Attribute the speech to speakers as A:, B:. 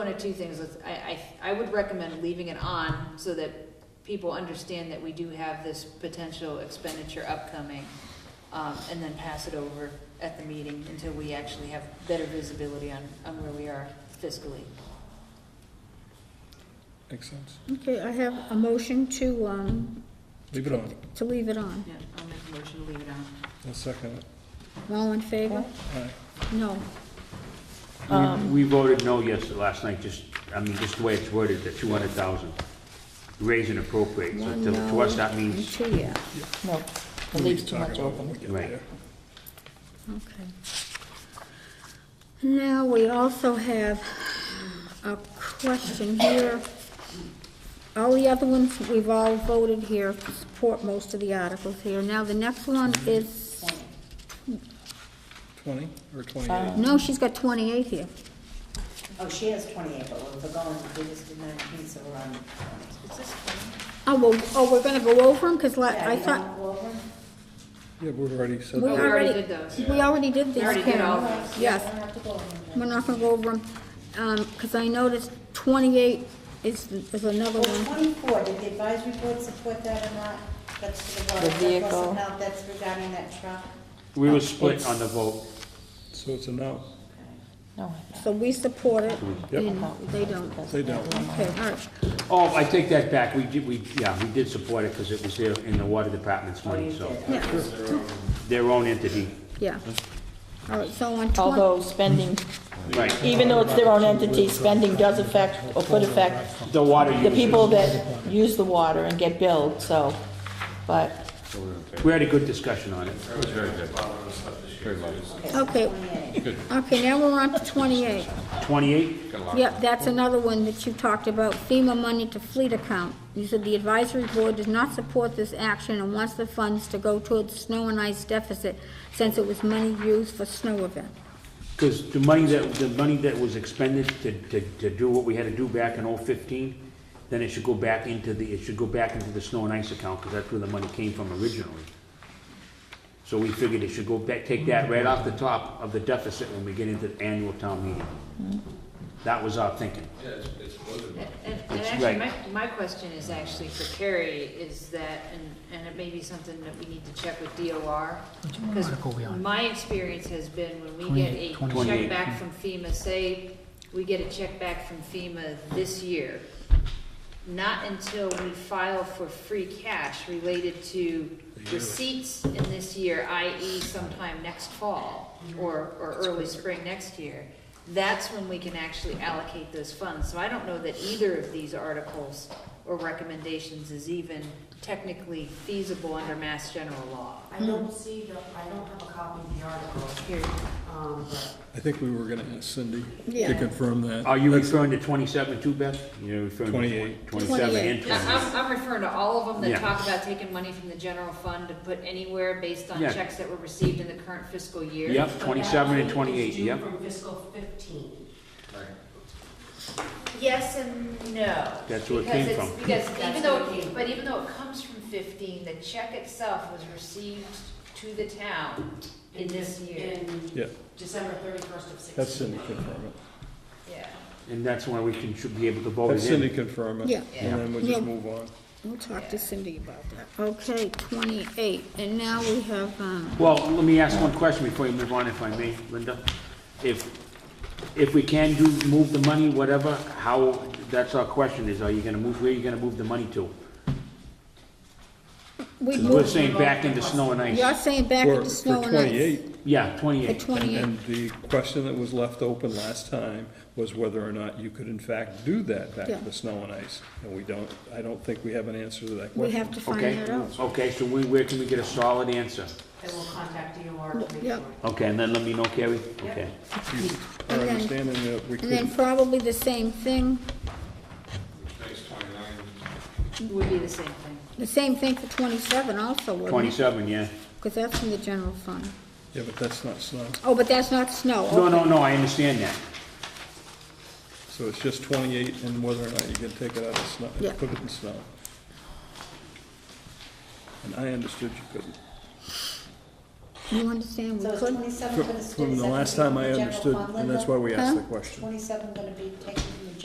A: of two things, Let's- I, I, I would recommend leaving it on so that people understand that we do have this potential expenditure upcoming, um, and then pass it over at the meeting until we actually have better visibility on, on where we are fiscally.
B: Makes sense.
C: Okay, I have a motion to, um,
B: Leave it on.
C: to leave it on.
A: Yeah, I'll make a motion to leave it on.
B: I'll second it.
C: All in favor?
B: All right.
C: No.
D: We voted no yes last night, just, I mean, just the way it's worded, the two hundred thousand, raise and appropriate, so
C: One
D: to- to us,
C: no,
D: that
C: and
D: means,
C: Two, yeah,
E: No, it leaves too much open.
D: Right.
C: okay. Now, we also have a question here. All the other ones, we've all voted here, to support most of the articles here. Now, the next one is,
B: Twenty or twenty-eight?
C: no, she's got twenty-eight here.
E: Oh, she has twenty-eight, but we're going, we just did nineteen, so we're on twenty.
C: Oh, well, oh, we're gonna go over them, because
E: Yeah,
C: I
E: you
C: thought,
E: wanna go over?
B: Yeah, we've already said
C: we
A: Oh,
B: that.
A: we already
C: already,
A: did those.
C: we already did these,
A: already did all
C: Karen.
A: those.
C: Yes.
E: We don't have to go over them.
C: We're not gonna go over them, because I noticed 28 is, is another
E: Well,
C: one.
E: twenty-four, did the advisory board support that or not? That's to the water.
F: The
E: surplus
F: vehicle.
E: amount, That's regarding that truck.
D: we were split on the vote.
B: So it's a no.
F: No,
C: So we support it,
B: Yep.
C: and they don't.
B: They don't.
C: Okay, all right.
D: Oh, I take that back, we did, we, yeah, we did support it, because it was there in the water department's
E: Oh,
D: money,
E: you
D: so,
E: did.
C: Yeah,
D: their own entity,
C: yeah. All right, so on 20,
F: although spending,
D: right.
F: even though it's their own entity, spending does affect or could affect
D: The water
F: the people
D: users,
F: that use the water and get billed, so, but,
D: we had a good discussion on it.
C: okay,
E: Twenty-eight.
C: okay, now we're on to 28.
D: Twenty-eight?
C: Yep, that's another one that you talked about, FEMA money to fleet account. You said the advisory board does not support this action and wants the funds to go towards snow and ice deficit since it was money used for snow event.
D: Because the money that, the money that was expended to, to, to do what we had to do back in 015, then it should go back into the, it should go back into the snow and ice account, because that's where the money came from originally. So we figured it should go back, take that
B: Mm-hmm.
D: right off the top of the deficit when we get into the annual town meeting.
B: Mm-hmm.
D: That was our thinking.
A: And, and- and
D: It's
A: actually, my,
D: right.
A: my question is actually for Carrie, is that, and, and it may be something that we need to check with DOR. Because
G: article we on?
A: my experience has been when we get a
G: 28,
A: check
D: 28.
A: back from FEMA, say, we get a check back from FEMA this year, not until we file for free cash related to receipts in this year, i.e. sometime next fall or, or early spring next year, that's when we can actually allocate those funds. So I don't know that either of these articles or recommendations is even technically feasible under mass general law.
H: I don't see the, I don't have a copy of the article,
A: Here,
H: um, but
B: I think we were gonna ask Cindy
C: Yeah.
B: to confirm that.
D: Are you
B: That's-
D: referring to twenty-seven too, Beth? You're referring to
B: 28.
D: Twenty-seven and
A: Yeah,
D: twenty-eight.
A: I'm, I'm referring to all of them that
D: Yeah.
A: talk about taking money from the general fund to put anywhere based on
D: Yeah.
A: checks that were received in the current fiscal year.
D: Yep, twenty-seven and
H: But that
D: twenty-eight,
H: is due
D: yep.
H: From fiscal fifteen.
A: Yes and no.
D: That's where it came
A: Because it's-
D: from.
A: Because even
H: That's
A: though,
H: where it came
A: but even though it comes from fifteen, the check itself was received to the town in this year,
H: In
B: Yeah,
H: December thirty-first of sixteen.
B: that's Cindy confirm it.
A: yeah.
D: And that's when Oh, we can, should be able to vote
B: That's
D: it in.
B: Cindy confirm it.
C: Yeah.
B: And then we'll just
C: Yeah.
B: move on.
C: We'll talk to Cindy about that. Okay, 28, and now we have, um,
D: Well, let me ask one question before you move on, if I may, Linda. If, if we can do, move the money, whatever, how, that's our question, is are you gonna move, where are you gonna move the money to?
C: we
D: We're
C: moved,
D: saying back into snow and
C: you're
D: ice.
C: saying back
B: For,
C: into
B: for
C: snow and ice.
B: twenty-eight,
D: Yeah,
C: For
D: twenty-eight.
C: 28.
B: and the question that was left open last time was whether or not you could in fact do that back
C: Yeah.
B: to the snow and ice. And we don't, I don't think we have an answer to that question.
C: We have to find
D: Okay,
C: that out.
D: okay, so we, where can we get a solid answer?
H: And we'll contact DOR to make
C: Yep.
H: sure.
D: Okay, and then let me know, Carrie? Okay.
B: Our
C: And then-
B: understanding that we
C: And then
B: couldn't,
C: probably the same thing,
A: Would be the same thing.
C: the same thing for 27 also, wouldn't it?
D: Twenty-seven, yeah.
C: Because that's from the general fund.
B: yeah, but that's not snow.
C: Oh, but that's not snow.
D: No,
C: okay.
D: no, no, I understand that.
B: So it's just twenty-eight and whether or not you can take it out of snow,
C: Yeah.
B: put it in snow. And I understood you couldn't.
C: You understand, we
E: So is
C: could,
E: twenty-seven
B: From
E: gonna stay?
B: from the last time I understood, and that's why we asked the question.
E: Twenty-seven gonna be taken